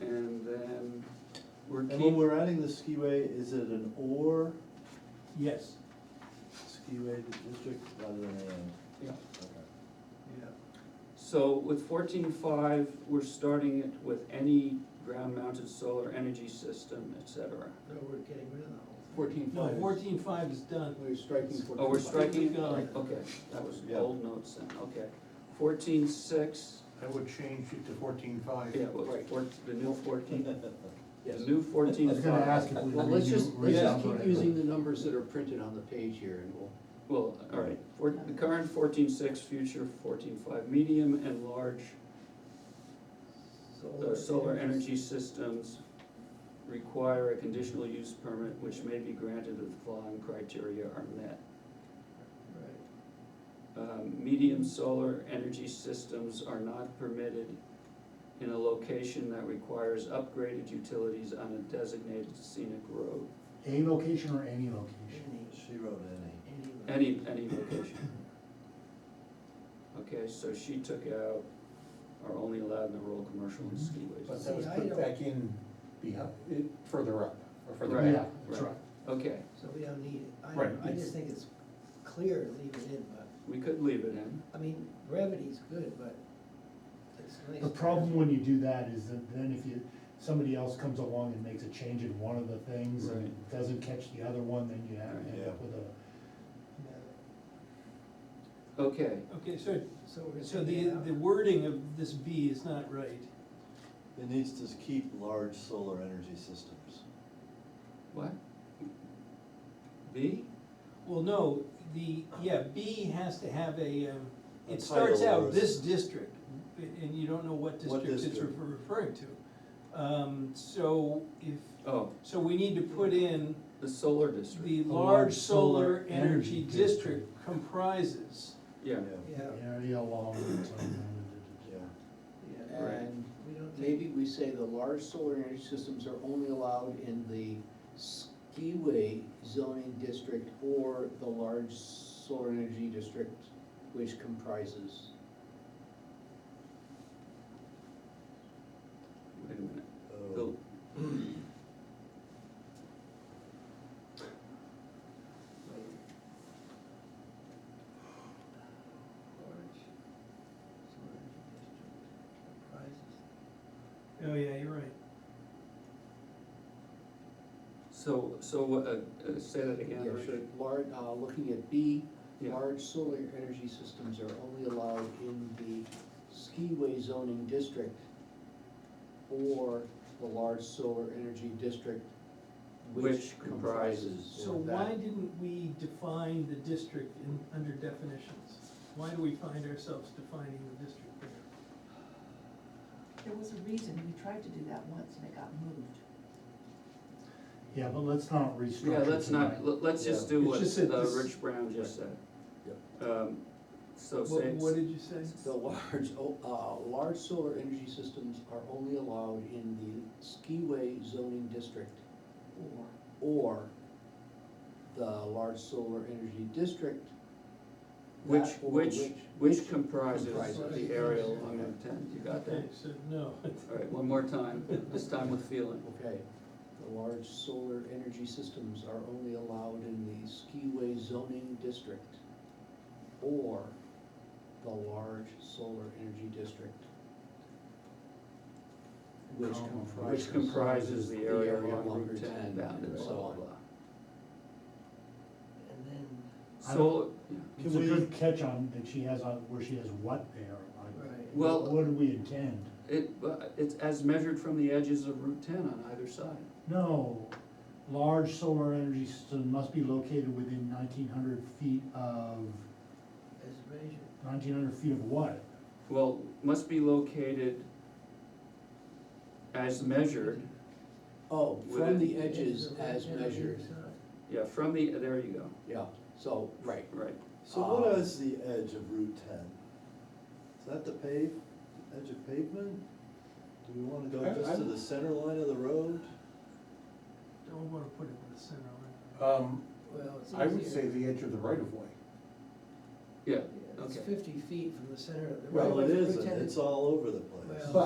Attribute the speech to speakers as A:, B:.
A: and then we're
B: And when
A: keep,
B: we're adding the skiway, is it an or
C: Yes,
B: skiway district rather than an and?
A: yeah,
B: Okay.
A: yeah. So with fourteen five, we're starting it with any ground-mounted solar energy system, et cetera.
D: No, we're getting rid of the whole thing.
A: Fourteen
C: no,
A: five.
C: fourteen five is done.
E: We're striking fourteen.
A: Oh, we're striking
C: Keep
A: it,
C: going.
A: okay, that was
B: Yeah.
A: old notes then, okay. Fourteen six,
F: I would change it to fourteen five.
A: yeah, well,
E: Right.
A: four, the new fourteen, the
E: Yes.
A: new fourteen
F: I was gonna
A: five.
F: ask if we.
E: Well, let's just,
F: redo-
E: let's
F: redo
E: just keep
F: it.
E: using the numbers that are printed on the page here and we'll,
A: Well, all right, four, the current fourteen six, future fourteen five, medium and large uh, solar energy systems require a conditional use permit which may be granted if the following criteria are met.
D: Right.
A: Um, medium solar energy systems are not permitted in a location that requires upgraded utilities on a designated scenic road,
F: A location or any location?
B: She wrote any.
D: Any, any.
A: any, any location. Okay, so she took out, are only allowed in the rural, commercial and skiways.
G: But that was
D: See, I
G: put
D: don't-
G: back in behind, it- further up, or further
A: Right,
G: back.
F: Yeah, that's
A: right.
F: right.
A: Okay,
D: So we don't need it. I,
G: Right.
D: don't- I just think it's clear to leave it in, but,
A: we could leave it in.
D: I mean, brevity's good, but it's nice.
F: The
D: to-
F: problem when you do that is that then if you, somebody else comes along and makes a change in one of the things and
A: Right.
F: doesn't catch the other one, then you have, end up
B: Yeah.
F: with a.
A: Okay,
C: Okay, so,
D: So we're gonna
C: so
D: take
C: the,
D: it out.
C: the wording of this B is not right.
B: It needs to keep large solar energy systems.
A: what? B?
C: Well, no, the, yeah, B has to have a, um,
B: A
C: it starts
B: title or a-
C: out this district, and you don't know what
B: What
C: district it's
B: district?
C: refer- referring to. Um, so if,
A: Oh,
C: so we need to put in
A: the solar district,
C: the large solar energy district comprises.
A: yeah,
D: Yeah,
F: Area along. the time.
B: Yeah.
D: yeah.
A: Right.
E: and
D: We don't take,
E: maybe we say the large solar energy systems are only allowed in the skiway zoning district or the large solar energy district, which comprises.
A: wait a minute,
B: Oh.
A: the,
D: wait. Large solar energy district comprises
C: Oh, yeah, you're right.
A: so, so, uh, uh, say that again,
E: Yeah,
A: Richard?
E: should Large, uh, looking at B,
A: Yeah,
E: large solar energy systems are only allowed in the skiway zoning district or the large solar energy district which
A: Which comprises.
E: comprises.
C: So
E: of
C: why
E: that.
C: didn't we define the district in, under definitions? Why do we find ourselves defining the district there?
H: There was a reason, we tried to do that once and it got moved.
F: Yeah, but let's not restructure.
A: yeah, let's not,
F: tonight.
A: let- let's just
B: Yeah.
A: do
F: It's
A: what,
F: just that
A: uh,
F: this-
A: Rich Brown just said. Um, so
C: What,
A: say,
C: what did you say?
E: The large, o- uh, large solar energy systems are only allowed in the skiway zoning district
H: Or,
E: or the large solar energy district.
A: which,
E: that or
A: which, which comprises
E: comprises.
A: the area along Route ten, you got
C: Okay,
A: that?
C: so, no.
A: All right, one more time, this time with feeling,
E: Okay, the large solar energy systems are only allowed in the skiway zoning district or the large solar energy district. Which
F: Comma.
E: comprises.
A: which comprises the area along Route ten, bounded,
E: and
A: blah,
E: so
A: blah,
E: on.
A: blah.
D: And then,
F: I don't-
A: Solar, yeah.
F: It's a good catch on that she has on, where she has what there, like.
D: right.
A: Well-
F: What do we intend?
A: It, but it's as measured from the edges of Route ten on either side.
F: No, large solar energy system must be located within nineteen hundred feet of,
D: As measured,
F: nineteen hundred feet of what?
A: Well, must be located as measured,
E: Oh,
A: Within-
E: from the edges
D: Edges of
E: as
D: right hand
E: measured,
D: side.
A: yeah, from the, there you go,
E: yeah, so, right,
A: right.
B: So what
E: Um,
B: is the edge of Route ten? Is that the pave, edge of pavement? Do we wanna go
G: I-
B: just to
G: I'm-
B: the center line of the road?
C: Don't wanna put it in the center line.
G: Um,
D: Well, it's
G: I would
D: easier.
G: say the edge of the right of way.
A: Yeah,
D: Yeah, It's
A: okay.
D: fifty feet from the center of the.
G: Well,
D: right
B: Well,
D: of
B: it
D: way for
B: isn't,
D: Lieutenant-
B: it's all over the place.
D: Well-
G: But